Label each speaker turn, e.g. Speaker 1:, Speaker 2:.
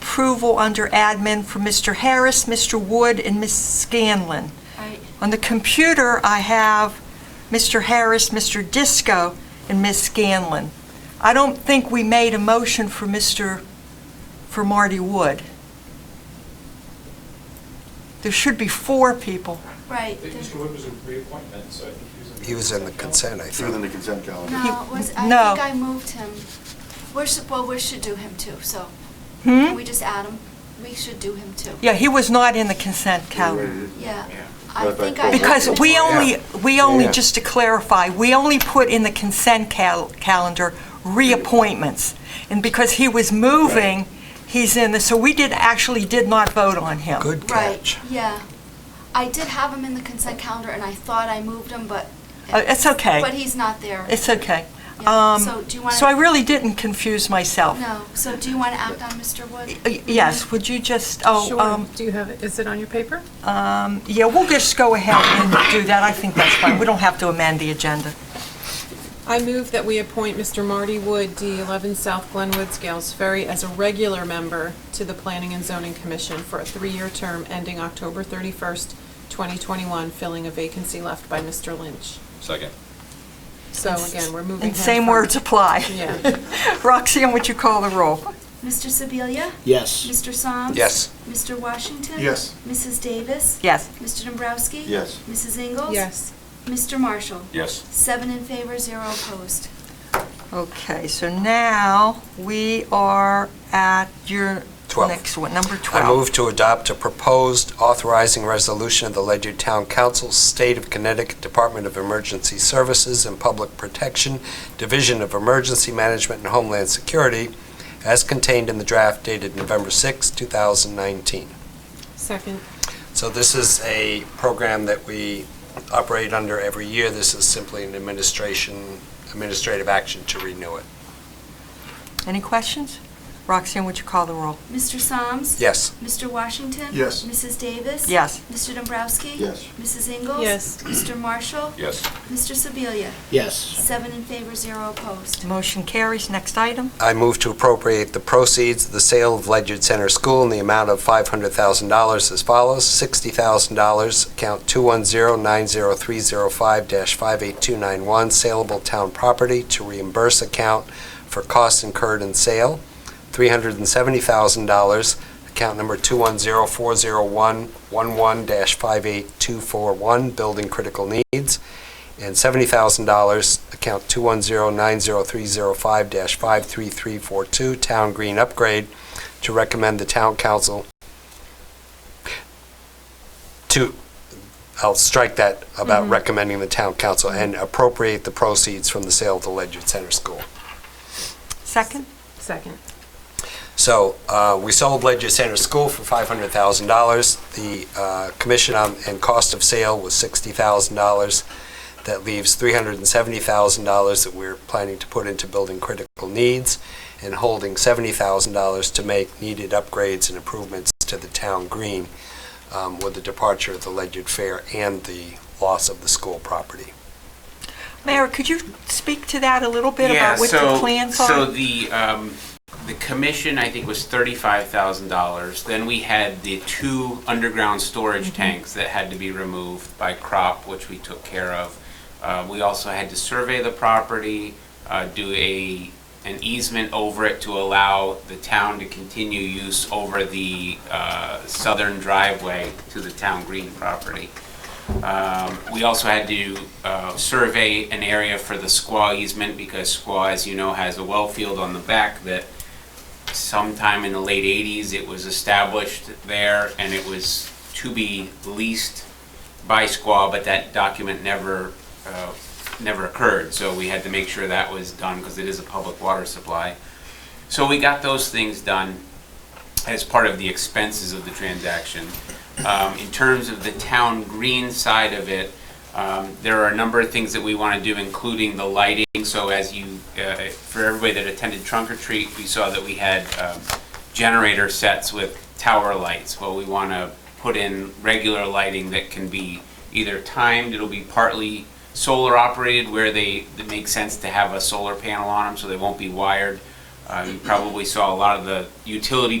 Speaker 1: approval under admin for Mr. Harris, Mr. Wood, and Ms. Scanlon.
Speaker 2: Right.
Speaker 1: On the computer, I have Mr. Harris, Mr. Disco, and Ms. Scanlon. I don't think we made a motion for Mr., for Marty Wood. There should be four people.
Speaker 2: Right.
Speaker 3: I think Mr. Wood was a reappointment, so I think he was in the...
Speaker 4: He was in the consent, I
Speaker 5: He was in the
Speaker 4: think.
Speaker 5: consent calendar.
Speaker 2: No, it was, I
Speaker 1: No.
Speaker 2: think I moved him. We're, su- well, we should do him too, so.
Speaker 1: Hmm?
Speaker 2: Can we just add him? We should do him too.
Speaker 1: Yeah, he was not in the consent calendar.
Speaker 2: Yeah.
Speaker 3: Yeah.
Speaker 2: I
Speaker 5: Right,
Speaker 2: think
Speaker 5: right,
Speaker 2: I.
Speaker 5: right.
Speaker 1: Because
Speaker 2: moved him.
Speaker 1: we only, we only,
Speaker 5: Yeah.
Speaker 1: just to clarify, we only put in the consent cal- calendar reappointments. And because he was moving, he's in the, so we did, actually did not vote on him.
Speaker 4: Good
Speaker 2: Right,
Speaker 4: catch.
Speaker 2: yeah. I did have him in the consent calendar and I thought I moved him, but.
Speaker 1: Uh, it's okay.
Speaker 2: But he's not there.
Speaker 1: It's okay.
Speaker 2: Yeah,
Speaker 1: Um,
Speaker 2: so do you wanna-
Speaker 1: So I really didn't confuse myself.
Speaker 2: No, so do you want to act on Mr. Wood?
Speaker 1: Y- Yes, would you just, oh,
Speaker 6: Sure.
Speaker 1: um,
Speaker 6: Do you have, it? Is it on your paper?
Speaker 1: um, yeah, we'll just go ahead and do that. I think that's fine. We don't have to amend the agenda.
Speaker 6: I move that we appoint Mr. Marty Wood, D11 South Glenwood, Scales Ferry, as a regular member to the Planning and Zoning Commission for a three-year term ending October 31st, 2021, filling a vacancy left by Mr. Lynch.
Speaker 3: Second.
Speaker 6: So again, we're moving him
Speaker 1: And same
Speaker 6: from-
Speaker 1: words apply.
Speaker 6: Yeah.
Speaker 1: Roxanne, would you call the roll?
Speaker 2: Mr. Sebelia?
Speaker 7: Yes.
Speaker 2: Mr. Soms?
Speaker 4: Yes.
Speaker 2: Mr. Washington?
Speaker 5: Yes.
Speaker 2: Mrs. Davis?
Speaker 1: Yes.
Speaker 2: Mr. Dombrowski?
Speaker 5: Yes.
Speaker 2: Mrs. Ingles?
Speaker 6: Yes.
Speaker 2: Mr. Marshall?
Speaker 3: Yes.
Speaker 2: Seven in favor, zero opposed.
Speaker 1: Okay, so now we are at your
Speaker 4: Twelve.
Speaker 1: next one, number
Speaker 4: I
Speaker 1: 12.
Speaker 4: move to adopt a proposed authorizing resolution of the Ledyard Town Council, State of Connecticut Department of Emergency Services and Public Protection, Division of Emergency Management and Homeland Security, as contained in the draft dated November 6, 2019.
Speaker 6: Second.
Speaker 4: So this is a program that we operate under every year. This is simply an administration, administrative action to renew it.
Speaker 1: Any questions? Roxanne, would you call the roll?
Speaker 2: Mr. Soms?
Speaker 4: Yes.
Speaker 2: Mr. Washington?
Speaker 5: Yes.
Speaker 2: Mrs. Davis?
Speaker 1: Yes.
Speaker 2: Mr. Dombrowski?
Speaker 5: Yes.
Speaker 2: Mrs. Ingles?
Speaker 6: Yes.
Speaker 2: Mr. Marshall?
Speaker 3: Yes.
Speaker 2: Mr. Sebelia?
Speaker 7: Yes.
Speaker 2: Seven in favor, zero opposed.
Speaker 1: Motion carries. Next item.
Speaker 4: I move to appropriate the proceeds of the sale of Ledyard Center School in the amount of $500,000 as follows. $60,000, account 210-90305-58291, saleable town property to reimburse account for costs incurred in sale. $370,000, account number 210-401-11-58241, building critical needs and $70,000, account 210-90305-53342, Town Green Upgrade, to recommend the town council to, I'll strike that about recommending the town council and appropriate the proceeds from the sale of the Ledyard Center School.
Speaker 1: Second?
Speaker 6: Second.
Speaker 4: So uh, we sold Ledyard Center School for $500,000. The uh, commission on- and cost of sale was $60,000. That leaves $370,000 that we're planning to put into building critical needs and holding $70,000 to make needed upgrades and improvements to the town green um, with the departure of the Ledyard Fair and the loss of the school property.
Speaker 1: Mayor, could you speak to that a little bit
Speaker 8: yeah,
Speaker 1: about what
Speaker 8: so,
Speaker 1: the plans are?
Speaker 8: So the um, the commission I think was thirty five thousand dollars. Then we had the two underground storage
Speaker 1: Mm-hmm.
Speaker 8: tanks that had to be removed by crop, which we took care of. Uh, we also had to survey the property, uh, do a an easement over it to allow the town to continue use over the uh, southern driveway to the town green property. Um, We also had to uh, survey an area for the squaw easement because squaw, as you know, has a well field on the back that sometime in the late 80s, it was established there and it was to be leased by squaw, but that document never, uh, never occurred. So we had to make sure that was done because it is a public water supply. So we got those things done as part of the expenses of the transaction. Um, In terms of the town green side of it, um, there are a number of things that we want to do, including the lighting. So as you, uh, for everybody that attended trunk or treat, we saw that we had um, generator sets with tower lights. Well, we want to put in regular lighting that can be either timed, it'll be partly solar operated where they, it makes sense to have a solar panel on them so they won't be wired. Uh, You probably saw a lot of the utility